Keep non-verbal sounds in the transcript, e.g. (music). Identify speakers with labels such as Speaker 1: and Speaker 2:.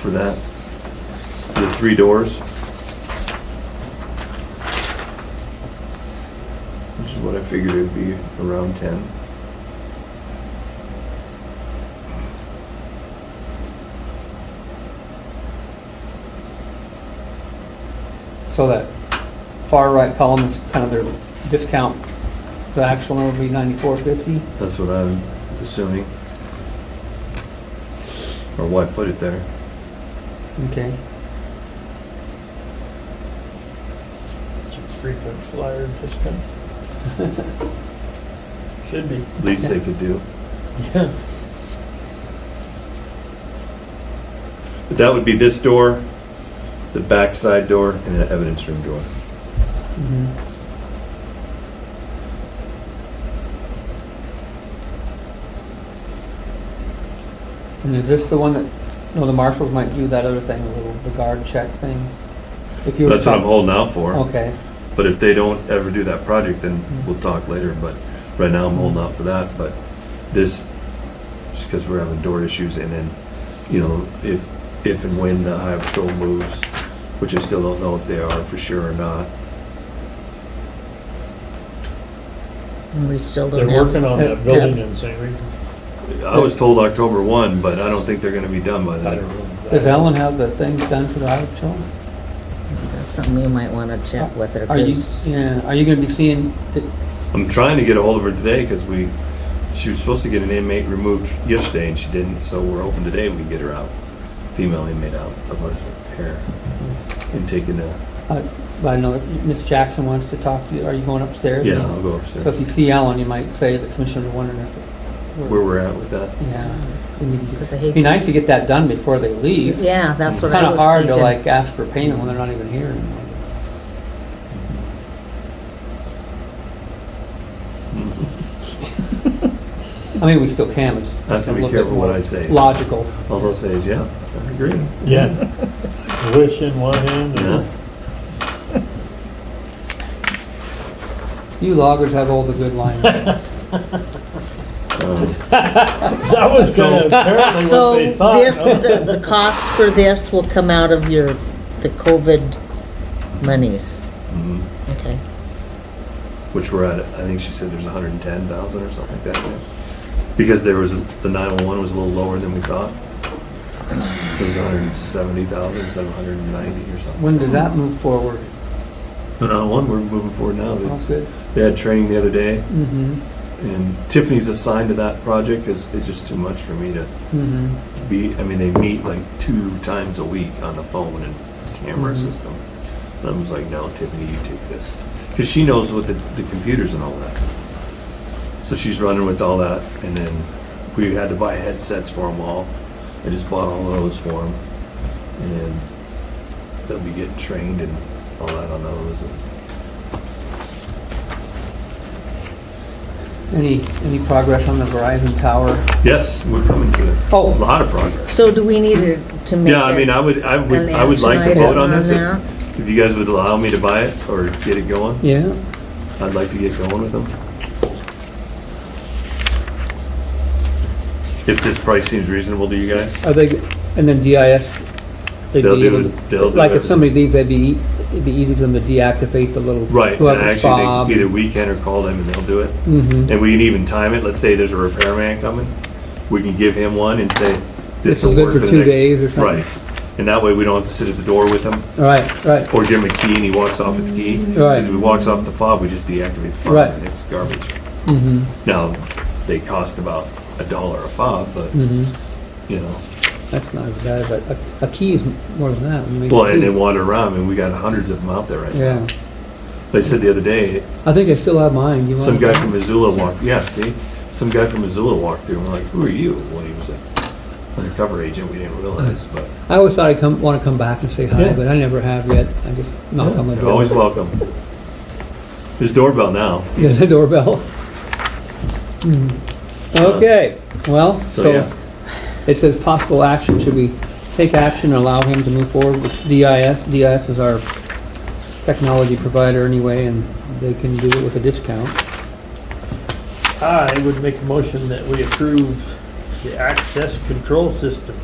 Speaker 1: for that? The three doors? This is what I figured it'd be, around ten.
Speaker 2: So that far right column is kind of their discount. The actual number would be ninety-four fifty.
Speaker 1: That's what I'm assuming. Or why put it there?
Speaker 2: Okay.
Speaker 3: It's a frequent flyer discount. Should be.
Speaker 1: Least they could do.
Speaker 3: Yeah.
Speaker 1: But that would be this door, the back side door, and the evidence room door.
Speaker 2: And is this the one that, no, the marshals might do that other thing, the little, the guard check thing? If you were
Speaker 1: That's what I'm
Speaker 2: talking,
Speaker 1: holding out for.
Speaker 2: okay,
Speaker 1: But if they don't ever do that project, then we'll talk later. But right now, I'm holding out for that. But this, just because we're having door issues, and then, you know, if if and when the high patrol moves, which I still don't know if they are for sure or not.
Speaker 4: And we still
Speaker 3: They're
Speaker 4: don't have,
Speaker 3: working on that building in St. Reed.
Speaker 1: I was told October one, but I don't think they're going to be done by
Speaker 3: I don't
Speaker 1: then.
Speaker 3: know.
Speaker 2: does Ellen have the things done for the highway patrol?
Speaker 4: that's something you might want to check with her,
Speaker 2: Are you,
Speaker 4: because
Speaker 2: yeah, are you gonna be seeing, it-
Speaker 1: I'm trying to get a hold of her today because we, she was supposed to get an inmate removed yesterday and she didn't. So we're hoping today we can get her out, female inmate out of her hair and taking a.
Speaker 2: uh, I know that Miss Jackson wants to talk to you, are you going upstairs?
Speaker 1: Yeah, I'll go
Speaker 2: So
Speaker 1: upstairs.
Speaker 2: if you see Alan, you might say the commissioner's wondering if.
Speaker 1: Where we're at with that.
Speaker 2: Yeah. we need to get-
Speaker 4: 'Cause I
Speaker 2: It'd
Speaker 4: hate
Speaker 2: be
Speaker 4: to-
Speaker 2: nice to get that done before they leave.
Speaker 4: yeah, that's what
Speaker 2: Kind
Speaker 4: I
Speaker 2: of
Speaker 4: was
Speaker 2: hard to
Speaker 4: thinking.
Speaker 2: like ask for payment when they're not even here (laughs) anymore. I mean, we still can, it's
Speaker 1: I have
Speaker 2: just a
Speaker 1: to be
Speaker 2: little bit
Speaker 1: careful what I
Speaker 2: more
Speaker 1: say.
Speaker 2: logical.
Speaker 1: All I'll say is, yeah, I agree.
Speaker 3: Yeah. Wish in one hand
Speaker 1: Yeah.
Speaker 3: and
Speaker 2: You loggers have all the good lines. (laughs)
Speaker 1: Um,
Speaker 3: that was kind of apparently what
Speaker 4: So
Speaker 3: they thought.
Speaker 4: this,
Speaker 3: huh?
Speaker 4: the, the cost for this will come out of your, the COVID monies,
Speaker 1: mhm.
Speaker 4: okay?
Speaker 1: Which we're at, I think she said there's 110,000 or something like that. yeah. Because there was, the 911 was a little lower than we thought. It was 170,000, 790 or something.
Speaker 2: When does that move forward?
Speaker 1: The 911, we're moving forward now.
Speaker 2: All
Speaker 1: It's-
Speaker 2: good?
Speaker 1: They had training the other day,
Speaker 2: Mm-hmm,
Speaker 1: and Tiffany's assigned to that project because it's just too much for me to
Speaker 2: mm-hmm.
Speaker 1: be. I mean, they meet like two times a week on the phone and camera
Speaker 4: Mm-hmm.
Speaker 1: system. And I was like, no, Tiffany, you take this. Because she knows what the, the computers and all that. So she's running with all that. And then we had to buy headsets for them all. I just bought all those for them. And they'll be getting trained and all that on those. And
Speaker 2: Any, any progress on the Verizon Tower?
Speaker 1: yes, we're coming to it. A
Speaker 2: Oh,
Speaker 1: lot of progress.
Speaker 4: So do we need to to make
Speaker 1: Yeah, I mean,
Speaker 4: a-
Speaker 1: I would, I would,
Speaker 4: an
Speaker 1: I would like to
Speaker 4: action
Speaker 1: vote
Speaker 4: item
Speaker 1: on
Speaker 4: on
Speaker 1: this
Speaker 4: that?
Speaker 1: if, if you guys would allow me to buy it or get it going.
Speaker 2: yeah,
Speaker 1: I'd like to get going with them. If this price seems reasonable to you guys?
Speaker 2: are they, and then DIS? they'd
Speaker 1: They'll
Speaker 2: be
Speaker 1: do
Speaker 2: able
Speaker 1: it-
Speaker 2: to-
Speaker 1: they'll do
Speaker 2: Like if
Speaker 1: everything.
Speaker 2: somebody leaves, that'd be, ea- it'd be easy for them to deactivate the little.
Speaker 1: Right, and
Speaker 2: whoever's
Speaker 1: actually,
Speaker 2: fob.
Speaker 1: they- either we can or call them and they'll do it.
Speaker 2: Mhm.
Speaker 1: And we can even time it, let's say there's a repairman coming, we can give him one and say,
Speaker 2: This
Speaker 1: this
Speaker 2: is
Speaker 1: will
Speaker 2: good
Speaker 1: work
Speaker 2: for
Speaker 1: for the
Speaker 2: two
Speaker 1: next.
Speaker 2: days or something.
Speaker 1: Right, and that way we don't have to sit at the door with him,
Speaker 2: All right, right.
Speaker 1: or give him a key and he walks off with the key.
Speaker 2: Right.
Speaker 1: If he walks off the fob, we just deactivate the fob
Speaker 2: Right.
Speaker 1: and it's garbage.
Speaker 2: Mm-hmm.
Speaker 1: Now, they cost about a dollar a fob, but,
Speaker 2: Mm-hmm.
Speaker 1: you know.
Speaker 2: That's not as bad, but a, a key is more than that. I mean,
Speaker 1: Well,
Speaker 2: a
Speaker 1: and
Speaker 2: key-
Speaker 1: they wander around, and we got hundreds of them out there right now.
Speaker 2: Yeah,
Speaker 1: They said the other day,
Speaker 2: I think I still have mine. You want?
Speaker 1: some guy from Missoula walked. Yeah, see, some guy from Missoula walked through, and we're like, "Who are you?" Well, he was an undercover agent. We didn't realize, but
Speaker 2: I always thought I would come want to come back and say hi,
Speaker 1: Yeah.
Speaker 2: but I never have yet. I just knock on the
Speaker 1: you're
Speaker 2: Oh, door. (laughs)
Speaker 1: always welcome. There's doorbell now.
Speaker 2: There's a doorbell. Mm. Okay. Well,
Speaker 1: So,
Speaker 2: so,
Speaker 1: yeah.
Speaker 2: it says possible action. Should we take action and allow him to move forward with DIS? DIS is our technology provider anyway, and they can do it with a discount.
Speaker 3: I would make a motion that we approve the access control system